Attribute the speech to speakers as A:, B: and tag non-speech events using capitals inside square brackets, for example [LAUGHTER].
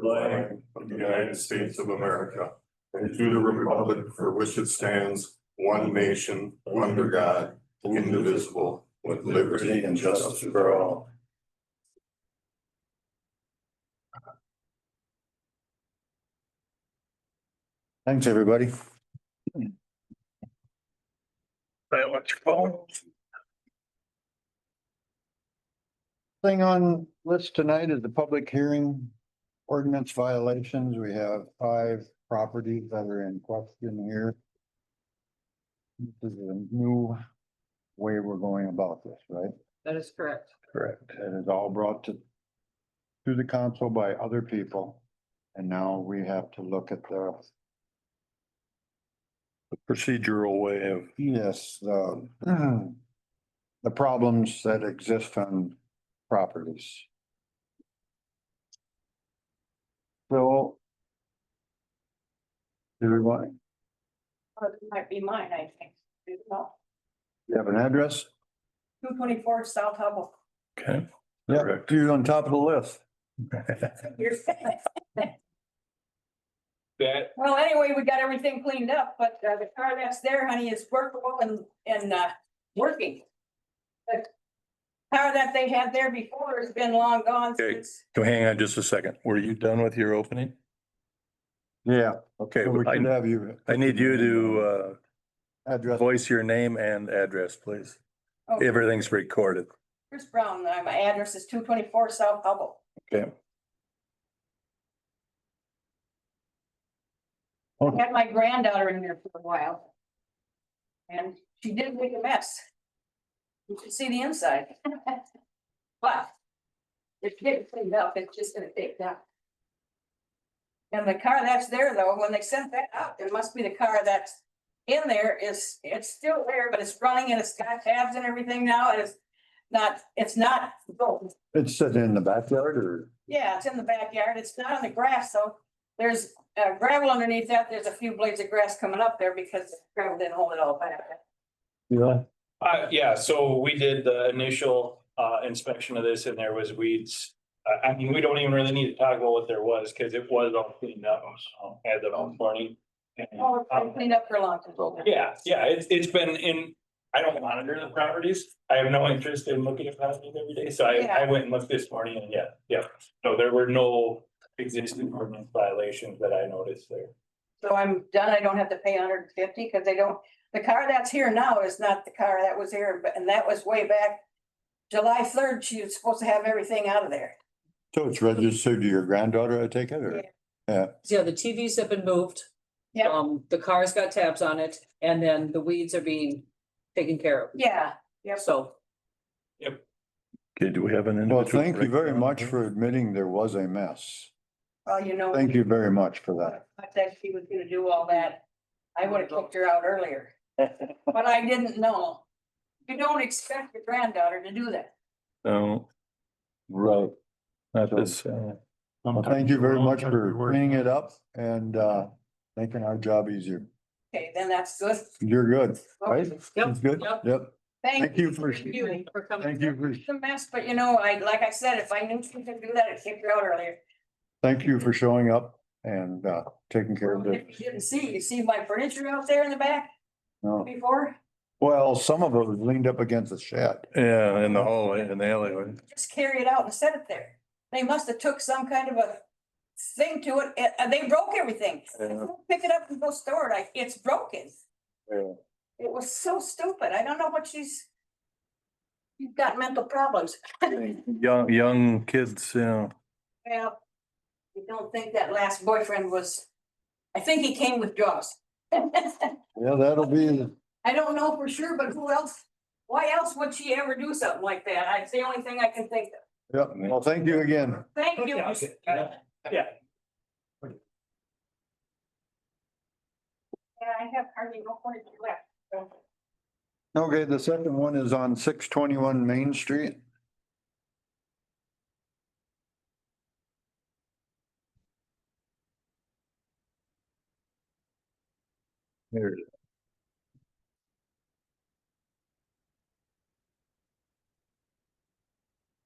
A: flag of the United States of America and to the republic for which it stands, one nation, under God, indivisible, with liberty and justice for all.
B: Thanks, everybody. Thing on list tonight is the public hearing ordinance violations. We have five properties that are in question here. This is a new way we're going about this, right?
C: That is correct.
B: Correct. It is all brought to, to the council by other people. And now we have to look at the,
D: procedural way of,
B: yes, the, [CLEARS THROAT] the problems that exist on properties. So. Do we want,
E: Well, it might be mine, I think.
B: you have an address?
E: Two twenty-four South Hubble. [LAUGHS]
D: okay,
B: Yeah, you're on top of the list.
E: You're saying- Well, anyway, we got everything cleaned up, but uh, the car that's there, honey, is workable and, and, uh, working. The Car that they had there before has been long gone
D: Okay.
E: since.
D: so hang on just a second. Were you done with your opening?
B: Yeah,
D: Okay,
B: so we
D: I,
B: should have you
D: I need you to, uh,
B: address.
D: voice your name and address, please.
E: Oh,
D: Everything's recorded.
E: Chris Brown, uh, my address is two twenty-four South Hubble.
D: Okay.
B: Okay.
E: Had my granddaughter in there for a while. And she did make a mess. You should see the inside. But. It's getting cleaned up, it's just gonna take time. And the car that's there though, when they sent that out, it must be the car that's in there is, it's still there, but it's running and it's got tabs and everything now, and it's not, it's not gold.
B: It's sitting in the backyard or?
E: Yeah, it's in the backyard. It's not on the grass, so there's uh, gravel underneath that. There's a few blades of grass coming up there because the gravel didn't hold it all back.
B: Yeah.
F: Uh, yeah, so we did the initial uh inspection of this and there was weeds. Uh, I, I mean, we don't even really need to talk about what there was, cause it was all cleaned up, um, as of this morning. And,
E: Oh, I
F: um,
E: cleaned up for a long time.
F: Yeah, yeah, it's, it's been in, I don't monitor the properties. I have no interest in looking at properties every day, so I, I went and looked this morning and yeah, yeah. So there were no existing ordinance violations that I noticed there.
E: So I'm done. I don't have to pay hundred and fifty because they don't, the car that's here now is not the car that was here, but and that was way back. July third, she was supposed to have everything out of there.
B: So it's registered to your granddaughter, I take it, or?
E: Yeah.
C: Yeah, the TVs have been moved.
E: Yep.
C: Um, the car's got tabs on it and then the weeds are being taken care of.
E: Yeah, yep.
C: So
D: Okay, do we have an?
B: Well,
D: individual
B: thank you very
D: breakdown?
B: much for admitting there was a mess.
E: Well, you know.
B: Thank you very much for that.
E: I thought she was gonna do all that. I would have kicked her out
B: [LAUGHS]
E: earlier. But I didn't know. You don't expect your granddaughter to do that.
D: No,
B: Right.
D: not this, uh,
B: Well, um, thank you very much for bringing it up and uh making our job easier.
E: Okay, then that's good.
B: You're good, right?
C: Yep,
B: It's good?
C: yep.
B: Yep. Thank you for,
E: Thank you.
C: for coming.
B: thank you for,
E: It's a mess, but you know, I, like I said, if I knew she could do that, I'd kick her out earlier.
B: thank you for showing up and uh taking care of it.
E: If you didn't see, you see my furniture out there in the back
B: No,
E: before?
B: well, some of it was leaned up against the shed.
D: yeah, in the hallway, in the alleyway.
E: Just carry it out and set it there. They must have took some kind of a thing to it, and- and they broke everything.
D: Yeah.
E: Pick it up and go store it. I, it's broken.
B: Yeah.
E: It was so stupid. I don't know what she's. You've got mental problems.
D: Young, young kids, you know,
E: Well, I don't think that last boyfriend was, I think he came with drugs. [LAUGHS] I
B: Yeah, that'll be,
E: don't know for sure, but who else? Why else would she ever do something like that? I- It's the only thing I can think of.
B: yep. Well, thank you again.
E: Thank you.
F: Yeah. Yeah.
E: And I have hardly no furniture left, so.
B: Okay, the second one is on six twenty-one Main Street. There it is.